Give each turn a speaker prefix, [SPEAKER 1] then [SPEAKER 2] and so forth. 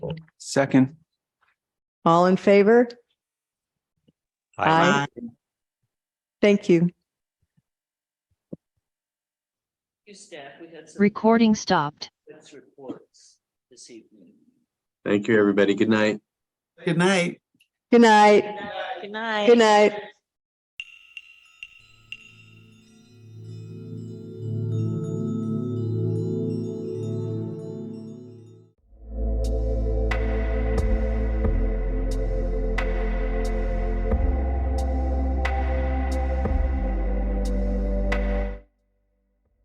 [SPEAKER 1] Second.
[SPEAKER 2] All in favor?
[SPEAKER 3] Aye.
[SPEAKER 2] Thank you.
[SPEAKER 4] You staff, we had some
[SPEAKER 5] Recording stopped.
[SPEAKER 4] expense reports this evening.
[SPEAKER 6] Thank you, everybody. Good night.
[SPEAKER 3] Good night.
[SPEAKER 2] Good night.
[SPEAKER 4] Good night.
[SPEAKER 2] Good night.